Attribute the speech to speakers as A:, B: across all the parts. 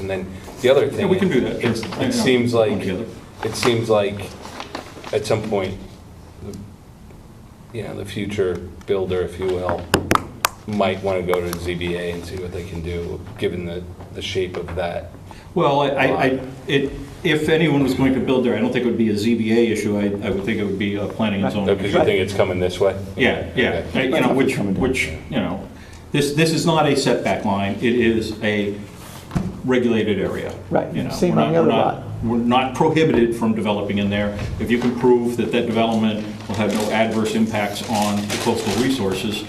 A: And then the other thing.
B: Yeah, we can
A: is,
B: do that.
A: it's-
B: Yeah, yeah.
A: It seems like,
B: Come together.
A: it seems like at some point, the- you know, the future builder, if you will, might want to go to ZBA and see what they can do, given the, the shape of that.
B: Well, I- I, I, it, if anyone was going to build there, I don't think it would be a ZBA issue, I, I would think it would be a planning and zoning.
A: Because you think it's coming this way?
B: Yeah, yeah,
A: Okay.
B: I- you know, which, which, you know, this, this is not a setback line, it is a regulated area.
C: Right,
B: you know.
C: same
B: We're
C: on
B: not-
C: the
B: we're
C: other
B: not-
C: lot.
B: We're not prohibited from developing in there. If you can prove that that development will have no adverse impacts on the coastal resources,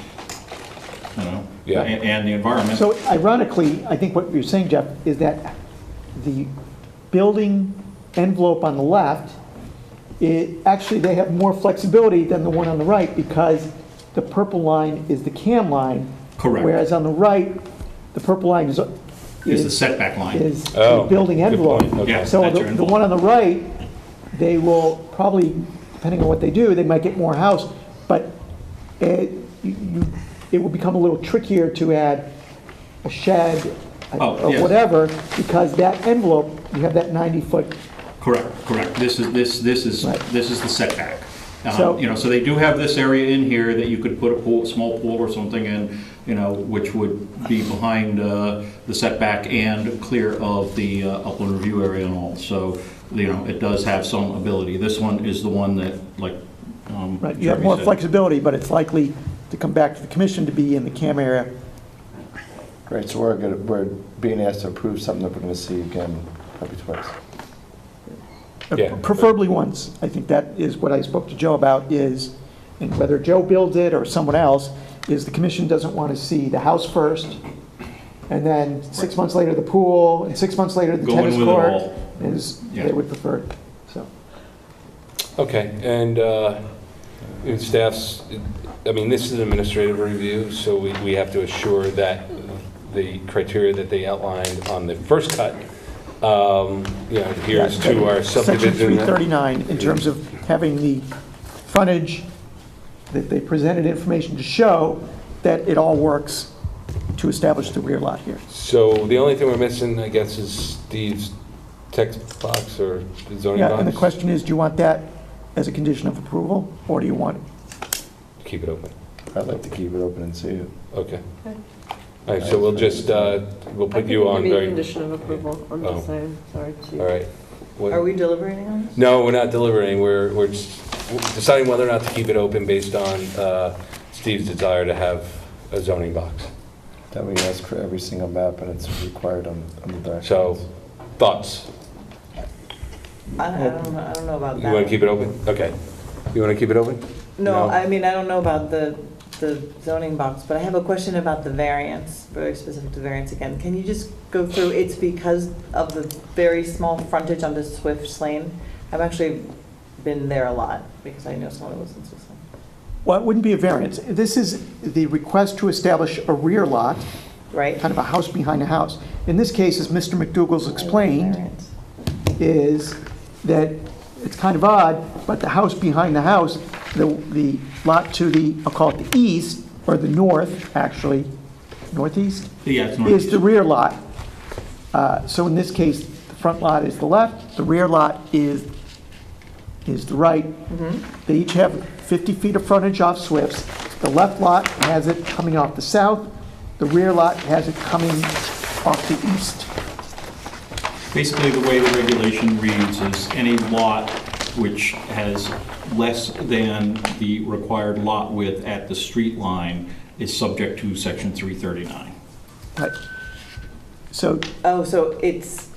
B: you know,
A: Yeah.
B: a- and the environment.
C: So ironically, I think what you're saying, Jeff, is that the building envelope on the left, it, actually, they have more flexibility than the one on the right because the purple line is the cam line.
B: Correct.
C: Whereas on the right, the purple line is,
B: Is the
C: is-
B: setback line.
C: is
A: Oh,
C: the building
A: good
C: envelope.
A: point. Okay.
B: Yeah,
C: So
B: that's
C: the
B: your
C: the
B: envelope.
C: one on the right, they will probably, depending on what they do, they might get more house, but it, you- you, it will become a little trickier to add a shed
B: Oh,
C: or
B: yes.
C: whatever, because that envelope, you have that 90-foot,
B: Correct, correct. This is, this, this is,
C: Right.
B: this is the setback. Um,
C: So-
B: You know, so they do have this area in here that you could put a pool, small pool or something in, you know, which would be behind uh, the setback and clear of the uh, upland review area and all. So, you know, it does have some ability. This one is the one that, like, um.
C: right? You have
B: Jeremy
C: more
B: said.
C: flexibility, but it's likely to come back to the commission to be in the CAM area.
D: Right, so we're gonna, we're being asked to approve something that we're gonna see again probably twice.
A: Yeah.
C: Uh, Preferably once. I think that is what I spoke to Joe about is, and whether Joe builds it or someone else, is the commission doesn't want to see the house first, and then six months later the pool, and six months later the
B: Go in
C: tennis
B: with it
C: court.
B: all.
C: Is, they
B: Yeah.
C: would prefer it, so.
A: Okay, and uh, in staff's, I mean, this is an administrative review, so we we have to assure that the criteria that they outlined on the first cut, um, you know, adheres to our
C: Section
A: subdivision.
C: 339, in terms of having the frontage, that they presented information to show that it all works to establish the rear lot here.
A: So the only thing we're missing, I guess, is Steve's text box or zoning
C: Yeah, and the
A: box.
C: question is, do you want that as a condition of approval, or do you want it?
A: Keep it open,
D: I'd like to keep it open and see it.
A: okay.
E: Okay.
A: All right, so we'll just, uh, we'll put
E: I think
A: you on.
E: Maybe a
A: very-
E: condition of approval, I'm
A: Oh.
E: just saying, sorry. Chief.
A: All right. What-
E: Are we deliberating on this?
A: No, we're not delivering, we're, we're just deciding whether or not to keep it open based on uh, Steve's desire to have a zoning box.
D: That we ask for every single map and it's required on, on the documents.
A: So, thoughts?
E: I I don't, know- I don't know about
A: You
E: that.
A: want to keep it open? Okay. You want to keep it open?
E: No,
A: No.
E: I mean, I don't know about the, the zoning box, but I have a question about the variance, very specific to variance again. Can you just go through, it's because of the very small frontage on the Swift Lane? I've actually been there a lot, because I know someone who lives in Swift Lane.
C: Well, it wouldn't be a variance. This is the request to establish a rear lot,
E: right?
C: kind of a house behind a house. In this case, as Mr. McDougal's explained,
E: Variance.
C: is that it's kind of odd, but the house behind the house, the, the lot to the, I'll call it the east, or the north, actually, northeast?
B: Yeah, it's northeast.
C: is the rear lot. Uh, So in this case, the front lot is the left, the rear lot is, is the right. They each have 50 feet of frontage off Swifts. The left lot has it coming off the south, the rear lot has it coming off the east.
B: Basically, the way the regulation reads is any lot which has less than the required lot width at the street line is subject to section 339.
C: Right. So
E: Oh, so it's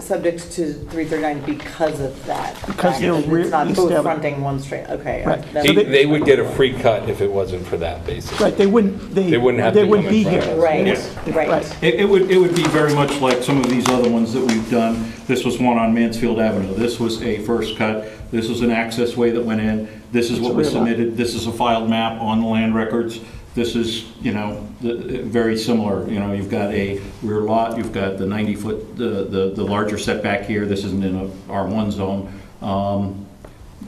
E: subject to 339 because of that?
C: Because they're
E: fact,
C: rear-
E: It's not both
C: established-
E: fronting one straight, okay.
C: Right.
E: that
A: He-
E: was-
A: They would get a free cut if it wasn't for that, basically.
C: Right, they wouldn't, they.
A: They wouldn't have to come in
C: be
A: front of
C: here.
A: us.
E: Right, right.
B: It, it would, it would be very much like some of these other ones that we've done. This was one on Mansfield Avenue. This was a first cut. This was an access way that went in. This is what was submitted. This is a filed map on the land records. This is, you know, the- very similar. You know, you've got a rear lot, you've got the 90-foot, the, the the larger setback here. This isn't in a R1 zone. Um,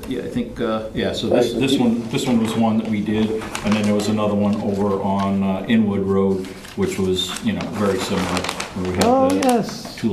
B: Yeah, I think, uh, yeah, so this, this one, this one was one that we did, and then there was another one over on uh, Inwood Road, which was, you know, very similar. where we had
C: Oh,
B: the
C: yes.
B: Two